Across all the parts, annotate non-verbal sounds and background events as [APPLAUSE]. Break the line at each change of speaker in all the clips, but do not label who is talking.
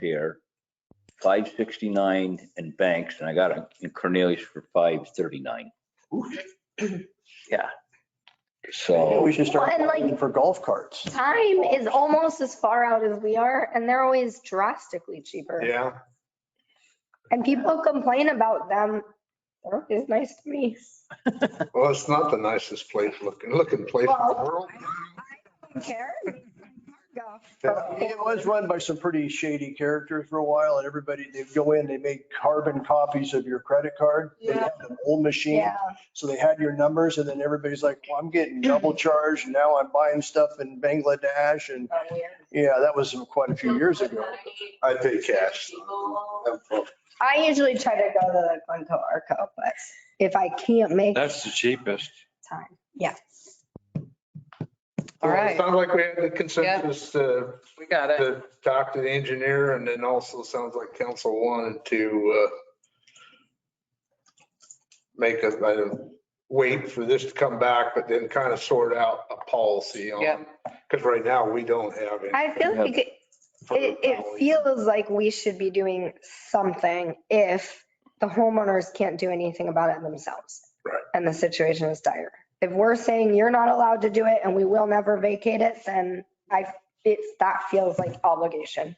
here, five sixty-nine and Banks, and I got it in Cornelius for five
[CLEARS THROAT]
thirty-nine. Yeah.
Maybe
So,
We should start
Well, and like-
looking for golf carts.
Time is almost as far out as we are, and they're always drastically cheaper.
Yeah,
And people complain about them. They're always nice to me.
well, it's not the nicest place looking, looking place in the
Well,
world.
Don't care.
It was run by some pretty shady characters for a while and everybody, they'd go in, they make carbon copies of your credit card. They
Yeah.
had an old machine.
Yeah,
So they had your numbers and then everybody's like, well, I'm getting double charged and now I'm buying stuff in Bangladesh and
oh, weird.
yeah, that was quite a few years ago.
I pay cash.
I usually try to go to the Glencoe Arco, but if I can't make
That's the cheapest.
time, yeah.
All right,
Sounds like we had the consensus, uh,
we got it.
to talk to the engineer and then also sounds like council wanted to, uh, make a, I don't- wait for this to come back, but then kind of sort out a policy on. Because right now we don't have any.
I feel like it, it it feels like we should be doing something if the homeowners can't do anything about it themselves.
Right.
And the situation is dire. If we're saying you're not allowed to do it and we will never vacate it, then I, it, that feels like obligation.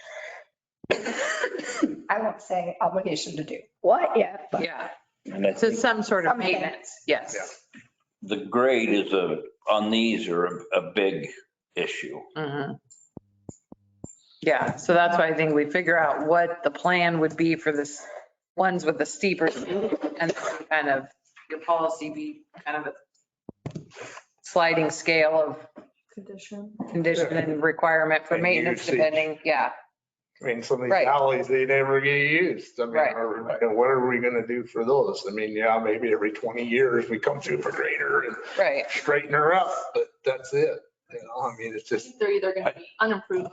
[COUGHS] I won't say obligation to do what yet, but.
Yeah,
and I
so
think
some sort of
Something.
maintenance, yes.
the grade is a, on these are a, a big issue.
Mhm. Yeah, so that's why I think we figure out what the plan would be for this, ones with the steeper and kind of your policy be kind of a sliding scale of
condition.
condition and requirement for
And
maintenance
usage.
depending, yeah,
I mean, some of these
Right.
alleys, they never get used. I mean,
Right.
are- and what are we going to do for those? I mean, yeah, maybe every 20 years we come through for grader and
right.
straighten her up, but that's it. You know, I mean, it's just,
They're either going to be unimproved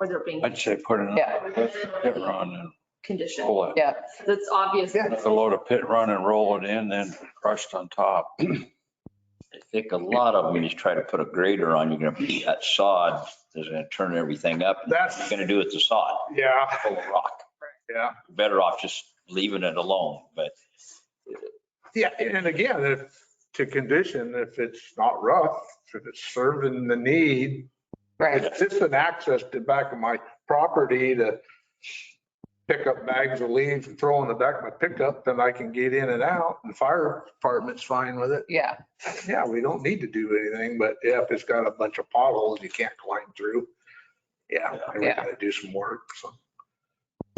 or they're being
I'd say put
Yeah.
another pit run and
Oh.
conditioned.
pull it.
That's obvious.
Yeah.
Put a load of pit run and roll it in, then crushed on top.
[CLEARS THROAT] I think a lot of them, you just try to put a grader on, you're gonna beat that sod, is gonna turn everything up. and
That's-
You're gonna do it the sod,
yeah,
full of rock.
yeah.
Better off just leaving it alone, but
Yeah, and again, if, to condition, if it's not rough, if it's serving the need,
Right,
it's just an access to back of my property to pick up bags of leaves and throw in the back of my pickup, then I can get in and out and fire department's fine with it.
yeah,
yeah, we don't need to do anything, but yeah, if it's got a bunch of potholes you can't climb through, yeah, we
Yeah.
gotta do some work, so.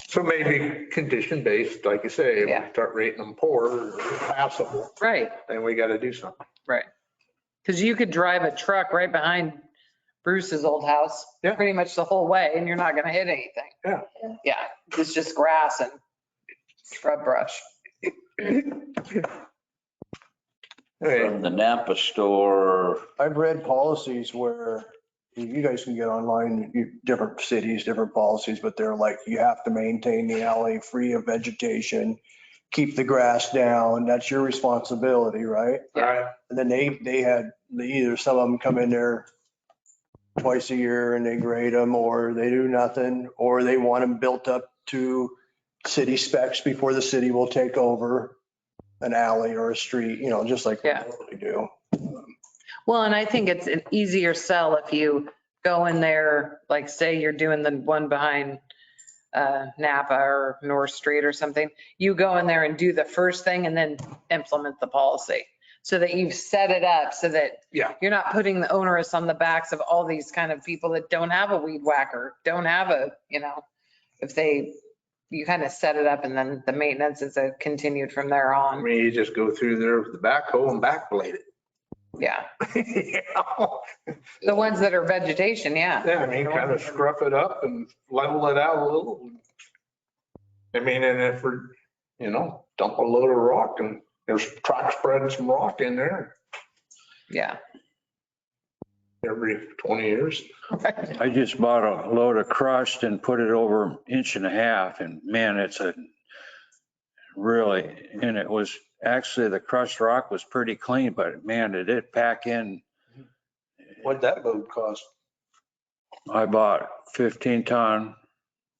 So maybe condition based, like you say, if
Yeah.
we start rating them poor or passable,
right.
then we gotta do something.
Because you could drive a truck right behind Bruce's old house,
Yeah.
pretty much the whole way, and you're not going to hit anything.
Yeah.
Yeah, it's just grass and shrub brush.
Hey,
from the Napa store,
I've read policies where you guys can get online, you, different cities, different policies, but they're like, you have to maintain the alley free of vegetation, keep the grass down, that's your responsibility, right?
all right,
And then they, they had, they either some of them come in there twice a year and they grade them, or they do nothing, or they want them built up to city specs before the city will take over an alley or a street, you know, just like we
Yeah.
normally do.
Well, and I think it's an easier sell if you go in there, like say you're doing the one behind uh, Napa or North Street or something. You go in there and do the first thing and then implement the policy so that you've set it up so that
Yeah.
you're not putting the onerous on the backs of all these kind of people that don't have a weed whacker, don't have a, you know, if they, you kind of set it up and then the maintenance is uh, continued from there
I
on.
mean, you just go through there with the backhoe and backblade
Yeah.
it. [LAUGHS]
The ones that are vegetation, yeah.
Yeah, I mean, kind of scruff it up and level it out a little. I mean, and if we're, you know, dump a load of rock and there's track spreading some rock in there
Yeah.
every 20 years.
I just bought a load of crushed and put it over an inch and a half and man, it's a really, and it was actually the crushed rock was pretty clean, but man, did it pack in.
What'd that load cost?
I bought 15 ton